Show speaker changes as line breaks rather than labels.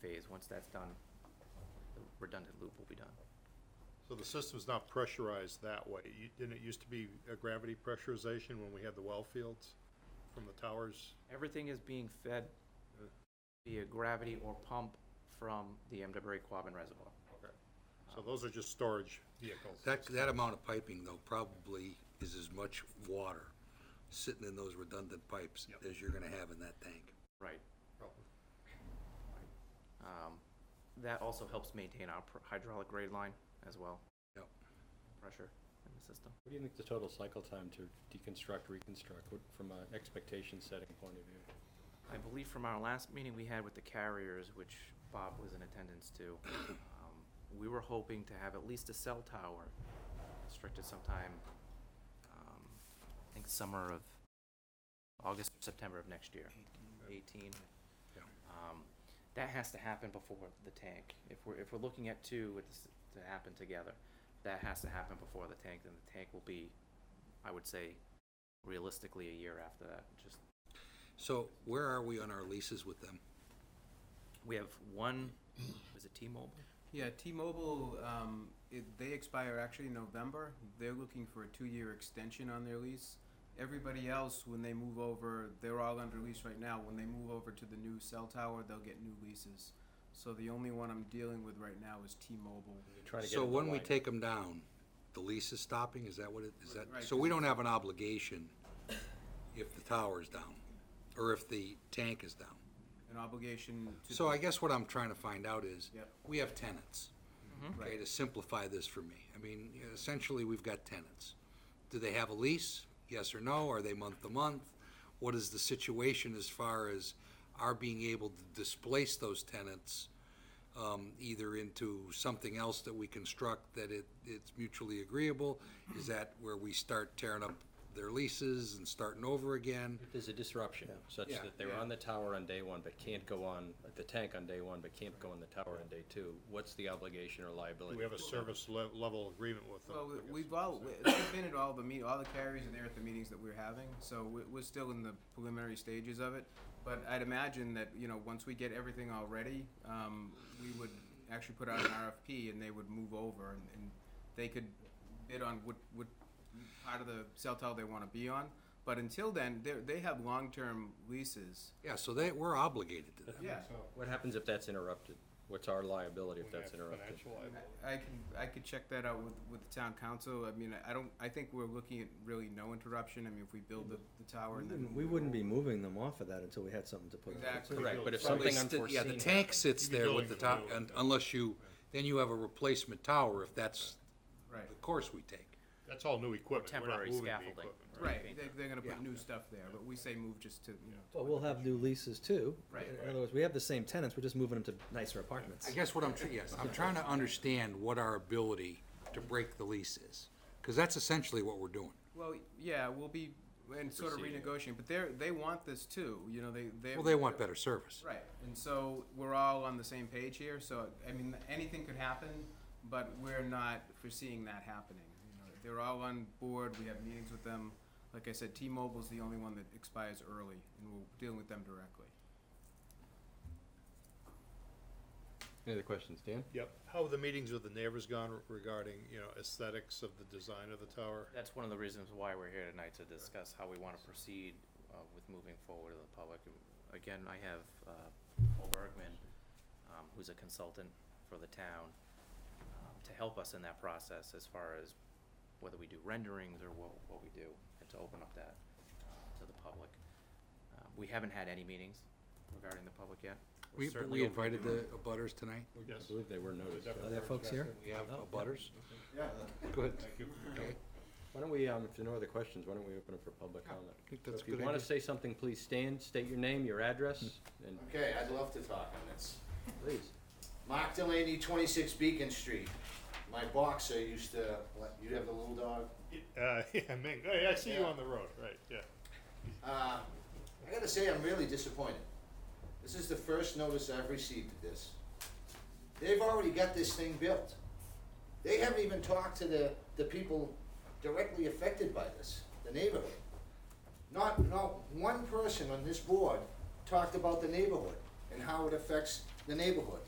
because once that's done, the redundant loop will be done.
So the system's not pressurized that way. You, didn't it used to be a gravity pressurization when we had the well fields from the towers?
Everything is being fed uh, via gravity or pump from the MWA Quabbin Reservoir.
Okay. So those are just storage vehicles?
That, that amount of piping though probably is as much water sitting in those redundant pipes
Yep.
as you're gonna have in that tank.
Right.
Oh,
Um, That also helps maintain our pr- hydraulic grade line as well,
Yep.
pressure in the system.
What do you think the total cycle time to deconstruct, reconstruct, what- from an expectation setting point of view?
I believe from our last meeting we had with the carriers, which Bob was in attendance to, um, we were hoping to have at least a cell tower constructed sometime, um, I think summer of, August, or September of next year, eighteen.
Yeah.
Um, that has to happen before the tank. If we're, if we're looking at two, it's to happen together. That has to happen before the tank, then the tank will be, I would say, realistically a year after that, just
So where are we on our leases with them?
We have one, was it T-Mobile?
Yeah, T-Mobile, um, it, they expire actually in November. They're looking for a two-year extension on their lease. Everybody else, when they move over, they're all under lease right now. When they move over to the new cell tower, they'll get new leases. So the only one I'm dealing with right now is T-Mobile.
You're trying to get
So
it to
when we
line up.
take them down, the lease is stopping, is that what it, is that,
Right.
so we don't have an obligation if the tower's down, or if the tank is down?
An obligation to.
So I guess what I'm trying to find out is,
Yep. Mm-hmm.
we have tenants. Okay,
Right.
to simplify this for me, I mean, essentially, we've got tenants. Do they have a lease? Yes or no? Are they month to month? What is the situation as far as our being able to displace those tenants? um, either into something else that we construct that it, it's mutually agreeable? Is that where we start tearing up their leases and starting over again?
If There's a disruption such
Yeah.
that they're on the tower on day one, but can't go on, the tank on day one, but can't go on the tower on day two. What's the obligation or
Do
liability?
we have a service le- level agreement with them?
Well,
I guess.
we've all, they've been at all the meet, all the carriers are there at the meetings that we're having, so we- we're still in the preliminary stages of it. But I'd imagine that, you know, once we get everything all ready, um, we would actually put out an RFP and they would move over and, and they could bid on what, what part of the cell tower they wanna be on. But until then, they're, they have long-term leases.
Yeah, so they, we're obligated to them.
Yeah.
What happens if that's interrupted? What's our liability if that's interrupted?
Financial liability.
I I can, I could check that out with, with the town council. I mean, I don't, I think we're looking at really no interruption. I mean, if we build the, the tower and then.
We wouldn't be moving them off of that until we had something to put. on.
Exactly.
Correct, but if
Well, they
something
sti-
unforeseen.
Yeah, the tank sits
You'd be
there with the
building
top,
from the
and
old-
unless you, then you have a replacement tower if that's
Right,
the course we take.
That's all new equipment. We're not
temporary
moving the
scaffolding.
equipment.
right. They're, they're gonna
Yeah.
put new stuff there, but we say move just to, you know.
But we'll have new leases too.
Right.
In other words, we have the same tenants, we're just moving them to nicer apartments.
I guess what I'm, tr- yes, I'm trying to understand what our ability to break the lease is, because that's essentially what we're doing.
Well, yeah, we'll be, and sort of renegotiating, but they're, they want this too, you know, they, they.
Well, they want better service.
Right, and so we're all on the same page here, so, I mean, anything could happen, but we're not foreseeing that happening. You know, They're all on board, we have meetings with them. Like I said, T-Mobile's the only one that expires early, and we're dealing with them directly.
Any other questions, Dan?
Yep. How have the meetings with the neighbors gone regarding, you know, aesthetics of the design of the tower?
That's one of the reasons why we're here tonight, to discuss how we want to proceed uh, with moving forward to the public. Again, I have uh, Paul Bergman, um, who's a consultant for the town, um, to help us in that process as far as whether we do renderings or what, what we do, and to open up that uh, to the public. Uh, We haven't had any meetings regarding the public yet. We're
We,
certainly
we
open to
invited the butters tonight.
I believe they were noticed.
Are there folks here?
We have uh, butters.
Yeah.
Good.
Why don't we, um, if there are no other questions, why don't we open it for public comment?
I think
So
that's a
If you
good
want to
idea. Hmm.
say something, please stand, state your name, your address, and
Okay, I'd love to talk on this.
please.
Mark Delaney, 26 Beacon Street. My boxer used to, what, you have the little dog?
Uh, yeah, Ming, hey, I see you
Yeah.
on the road, right, yeah.
Uh, I gotta say, I'm really disappointed. This is the first notice I've received of this. They've already got this thing built. They haven't even talked to the, the people directly affected by this, the neighborhood. Not, not one person on this board talked about the neighborhood and how it affects the neighborhood.